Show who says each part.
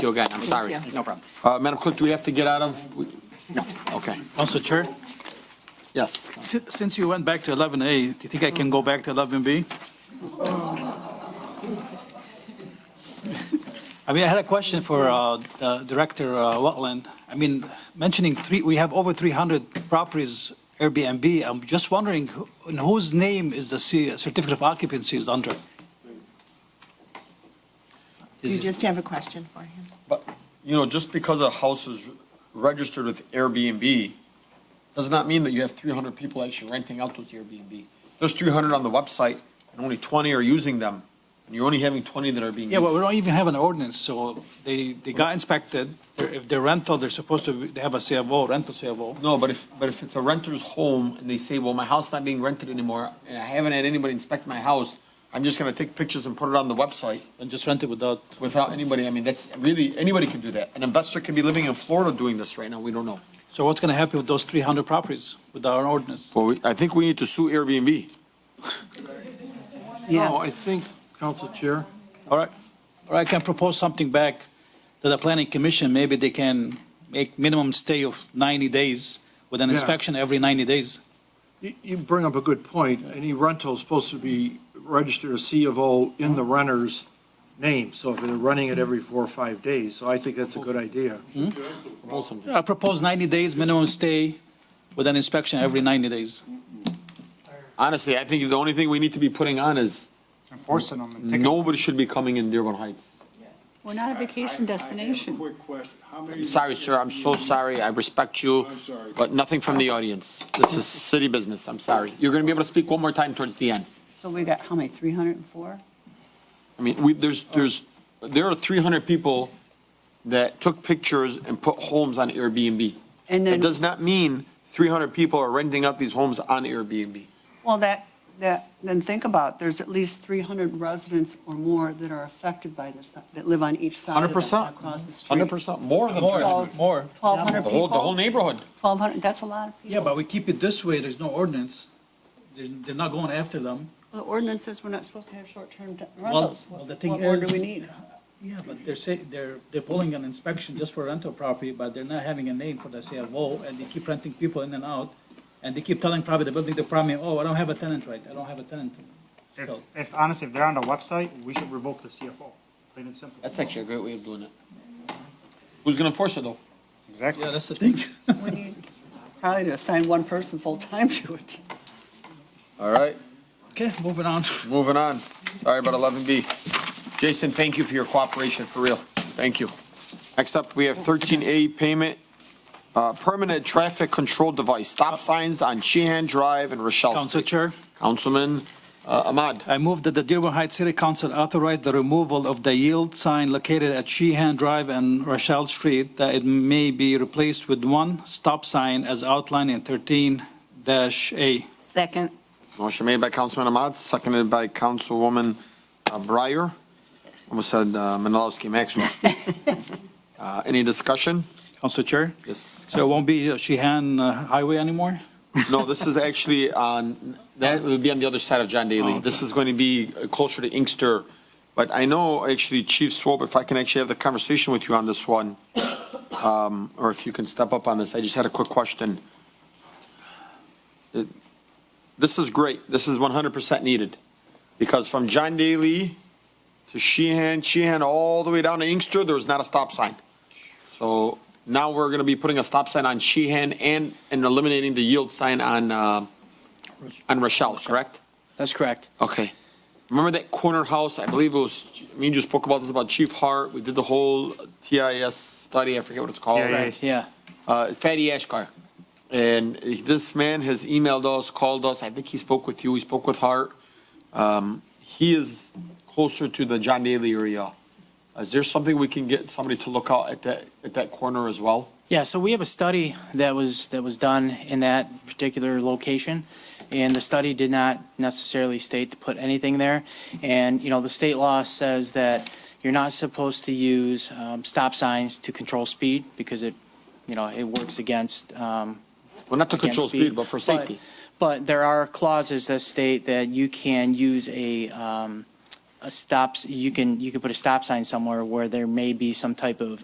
Speaker 1: you again, I'm sorry.
Speaker 2: Thank you.
Speaker 1: No problem. Uh, Madam Clerk, do we have to get out of? we- No, okay.
Speaker 3: Council Chair,
Speaker 1: Yes.
Speaker 3: si- since you went back to 11A, do you think I can go back to 11B? I mean, I had a question for uh, uh, Director uh, Wetland. I mean, mentioning three, we have over 300 properties Airbnb. I'm just wondering, who- in whose name is the C- certificate of occupancy is under?
Speaker 2: You
Speaker 3: Is-
Speaker 2: just have a question for him.
Speaker 4: But, you know, just because a house is registered with Airbnb does not mean that you have 300 people actually renting out those Airbnb. There's 300 on the website and only 20 are using them, and you're only having 20 that are being
Speaker 3: Yeah, well,
Speaker 4: used.
Speaker 3: we don't even have an ordinance, so they, they got inspected. They're- If they're rental, they're supposed to, be- they have a CFO, rental CFO.
Speaker 4: No, but if, but if it's a renter's home and they say, well, my house's not being rented anymore, and I haven't had anybody inspect my house, I'm just gonna take pictures and put it on the website
Speaker 3: and just rent it without,
Speaker 4: without anybody, I mean, that's really, anybody can do that. An investor could be living in Florida doing this right now, we don't know.
Speaker 3: so what's gonna happen with those three hundred properties with our ordinance?
Speaker 1: Well, we- I think we need to sue Airbnb.
Speaker 5: No, I think, Council Chair,
Speaker 3: All right, or I can propose something back to the planning commission, maybe they can make minimum stay of ninety days with an
Speaker 5: Yeah.
Speaker 3: inspection every ninety days.
Speaker 5: you- you bring up a good point. Any rental is supposed to be registered as C of O in the renter's name, so if they're running it every four or five days, so I think that's a good idea.
Speaker 3: I propose ninety days minimum stay with an inspection every ninety days.
Speaker 4: Honestly, I think the only thing we need to be putting on is,
Speaker 6: enforcing them and taking.
Speaker 4: nobody should be coming in Dearborn Heights.
Speaker 7: We're not a vacation
Speaker 8: I
Speaker 7: destination.
Speaker 8: have a quick question. How many?
Speaker 1: I'm sorry, sir, I'm so sorry, I respect you,
Speaker 8: I'm sorry.
Speaker 1: but nothing from the audience. This is city business, I'm sorry. You're gonna be able to speak one more time towards the end.
Speaker 7: So we got, how many, 304?
Speaker 4: I mean, we, there's, there's, there are three hundred people that took pictures and put homes on Airbnb.
Speaker 7: And
Speaker 4: It
Speaker 7: then,
Speaker 4: does not mean three hundred people are renting out these homes on Airbnb.
Speaker 7: well, that, that, then think about, there's at least 300 residents or more that are affected by this, that live on each side of
Speaker 4: 100%.
Speaker 7: that, across the street.
Speaker 4: Hundred percent, more than
Speaker 7: More.
Speaker 4: three hundred.
Speaker 7: So-
Speaker 3: More.
Speaker 7: 1,200
Speaker 4: The whole,
Speaker 7: people,
Speaker 4: the whole neighborhood.
Speaker 7: 1,200, that's a lot of people.
Speaker 3: Yeah, but we keep it this way, there's no ordinance, they're, they're not going after them.
Speaker 7: The ordinance says we're not supposed to have short-term de- rentals.
Speaker 3: well,
Speaker 7: What
Speaker 3: the thing
Speaker 7: what more do
Speaker 3: is-
Speaker 7: we need?
Speaker 3: Yeah, but they're say, they're, they're pulling an inspection just for rental property, but they're not having a name for the CFO, and they keep renting people in and out, and they keep telling probably the building department, oh, I don't have a tenant right, I don't have a tenant.
Speaker 6: If,
Speaker 3: Still,
Speaker 6: if honestly, if they're on the website, we should revoke the CFO, plain and simple.
Speaker 4: That's actually a great way of doing it. Who's gonna enforce it though?
Speaker 6: Exactly.
Speaker 3: yeah, that's the thing.
Speaker 7: We need Probably to assign one person full-time to it.
Speaker 4: All right,
Speaker 3: Okay, moving on.
Speaker 4: moving on. Sorry about eleven B. Jason, thank you for your cooperation, for real. Thank you. Next up, we have thirteen A payment, uh, permanent traffic control device, stop signs on Sheehan Drive and Rochelle Street.
Speaker 3: Council Chair,
Speaker 4: Councilman uh, Ahmad.
Speaker 3: I move that the Dearborn Heights City Council authorize the removal of the yield sign located at Sheehan Drive and Rochelle Street, that it may be replaced with one stop sign as outlined in thirteen dash A.
Speaker 2: Second.
Speaker 4: Motion made by Councilman Ahmad, seconded by Councilwoman uh, Breyer. Almost said uh, Menalowski Maxwell. Uh, Any discussion?
Speaker 3: Council Chair,
Speaker 4: Yes.
Speaker 3: so it won't be uh, Sheehan uh, Highway anymore?
Speaker 4: No, this is actually on, that would be on the other side of John Daly. This is going to be closer to Inkster. But I know actually Chief Swope, if I can actually have the conversation with you on this one, um, or if you can step up on this, I just had a quick question. It- This is great. This is 100% needed. Because from John Daly to Sheehan, Sheehan, all the way down to Inkster, there was not a stop sign. So now we're going to be putting a stop sign on Sheehan and, and eliminating the yield sign on, uh, on Rochelle, correct?
Speaker 1: That's correct.
Speaker 4: Okay. Remember that corner house? I believe it was, me and you spoke about this about Chief Hart. We did the whole TIS study. I forget what it's called.
Speaker 6: TIA. Right.
Speaker 1: Yeah.
Speaker 4: Uh, Fatty Ashkar. And this man has emailed us, called us. I think he spoke with you. He spoke with Hart. Um, he is closer to the John Daly area. Is there something we can get somebody to look out at that, at that corner as well?
Speaker 9: Yeah, so we have a study that was, that was done in that particular location, and the study did not necessarily state to put anything there. And, you know, the state law says that you're not supposed to use um, stop signs to control speed because it, you know, it works against, um,
Speaker 4: Well, not to
Speaker 9: against
Speaker 4: control speed, but for safety.
Speaker 9: But there are clauses that state that you can use a, um, a stops, you can, you can put a stop sign somewhere where there may be some type of